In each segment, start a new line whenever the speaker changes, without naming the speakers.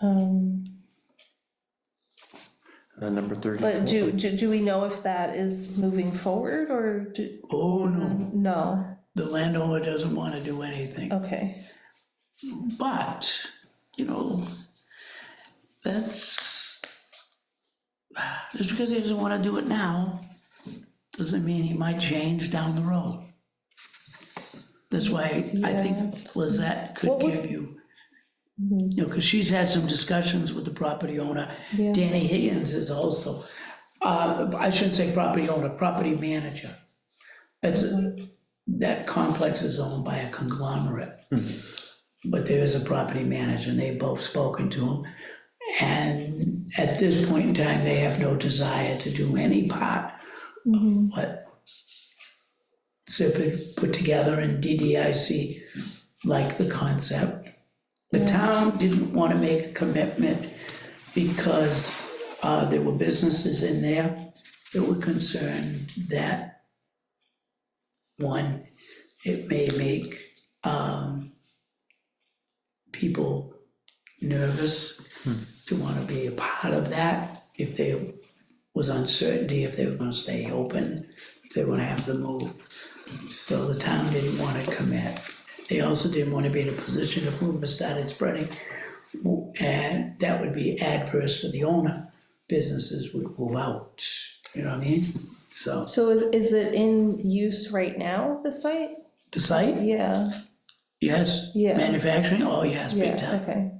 Um,
And Uh, number thirty-four.
But do, do, do we know if that is moving forward or do,
Oh,
Mm-hmm.
no,
no,
the landowner doesn't want to do
Oh.
anything.
okay.
But, you know, that's, just because he doesn't want to do it now, doesn't mean he might change down the road. That's why I think Lizette could
What would-
give you, you know, because she's had some discussions with the property owner.
Yeah.
Danny Higgins is also, uh, I shouldn't say property owner, property manager. It's, that complex is owned by a conglomerate. But there is a property manager, and they've both spoken to him. And at this point in time, they have no desire to do any part of what Serpent put together in DDIC, like the concept. The town didn't want to make a commitment because uh, there were businesses in there that were concerned that, one, it may make um, people nervous to want to be a part of that if there was uncertainty, if they were going to stay open, if they were going to have to move. So the town didn't want to commit. They also didn't want to be in a position if rumor started spreading and that would be adverse for the owner. Businesses would move out, you know what I mean? So,
So is, is it in use right now, the site?
the site,
Yeah,
yes.
Yeah.
Manufacturing, oh yes, big
yeah,
time.
okay.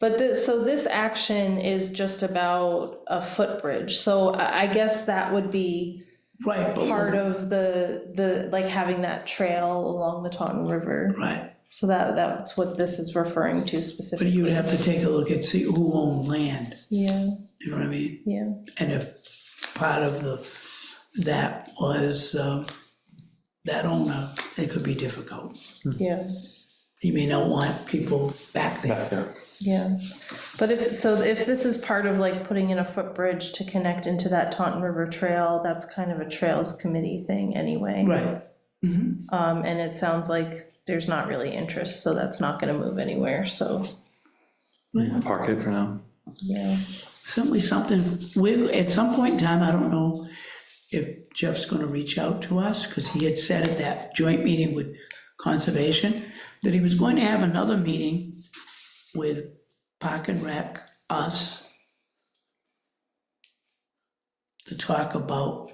But this, so this action is just about a footbridge, so I, I guess that would be
Right, but.
part of the, the, like having that trail along the Taunton River.
Right,
So that, that's what this is referring to
but
specifically.
you would have to take a look and see who owned land,
Yeah,
you know what I mean?
yeah,
And if part of the, that was, um, that owner, it could be difficult.
yeah.
He may not want people back there.
Back there.
Yeah, but if, so if this is part of like putting in a footbridge to connect into that Taunton River Trail, that's kind of a Trails Committee thing anyway.
Right. Mhm.
Um, and it sounds like there's not really interest, so that's not gonna move anywhere, so, Mm-hmm.
Yeah, Park it for now.
yeah.
certainly something, we, at some point in time, I don't know if Jeff's gonna reach out to us, because he had said at that joint meeting with Conservation, that he was going to have another meeting with Park and Rec, us, to talk about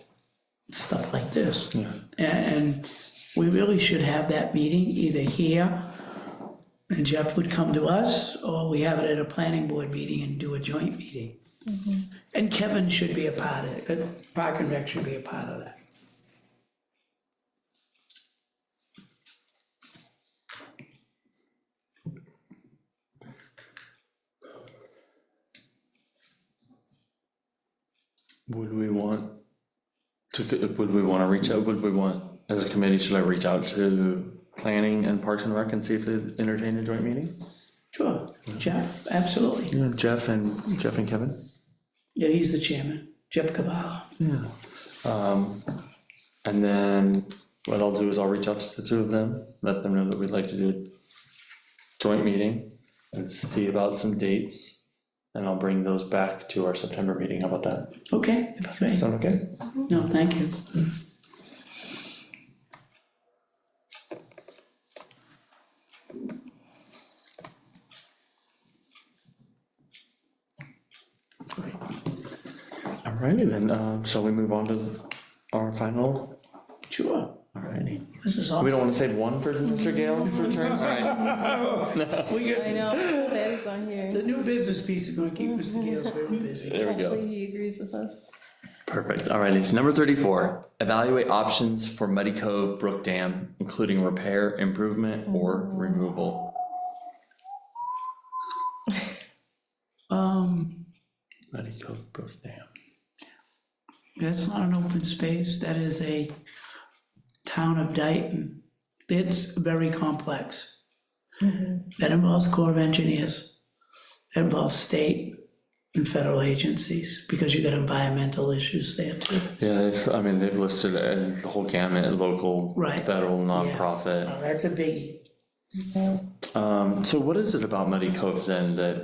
stuff like this.
Yeah.
And we really should have that meeting either here, and Jeff would come to us, or we have it at a planning board meeting and do a joint meeting. And Kevin should be a part of it, uh, Park and Rec should be a part of that.
Would we want to, would we want to reach out, would we want, as a committee, should I reach out to planning and Parks and Rec and see if they entertain a joint meeting?
Sure, Jeff, absolutely.
You know, Jeff and, Jeff and Kevin?
Yeah, he's the chairman, Jeff Cavallo.
Yeah. Um, and then what I'll do is I'll reach out to the two of them, let them know that we'd like to do a joint meeting and see about some dates. And I'll bring those back to our September meeting. How about that?
Okay, great.
Sound okay?
No, thank you.
Alrighty then, um, shall we move on to our final?
Sure,
Alrighty.
this is
We don't
awesome.
wanna save one for Mr. Gale's return? Alright,
We
I
get-
know, Patty's on here.
The new business piece is gonna keep Mr. Gales very busy.
there we go.
Hopefully he agrees with us.
Perfect, alrighty. Number thirty-four, evaluate options for Muddy Cove Brook Dam, including repair, improvement, or removal.
Um,
Muddy Cove Brook Dam.
that's not an open space, that is a town of Dayton. It's very complex. That involves Corps of Engineers, that involves state and federal agencies, because you got environmental issues there too.
Yeah, it's, I mean, they've listed uh, the whole gamut, local,
Right.
federal, nonprofit.
Now, That's a biggie.
Um, so what is it about Muddy Cove then that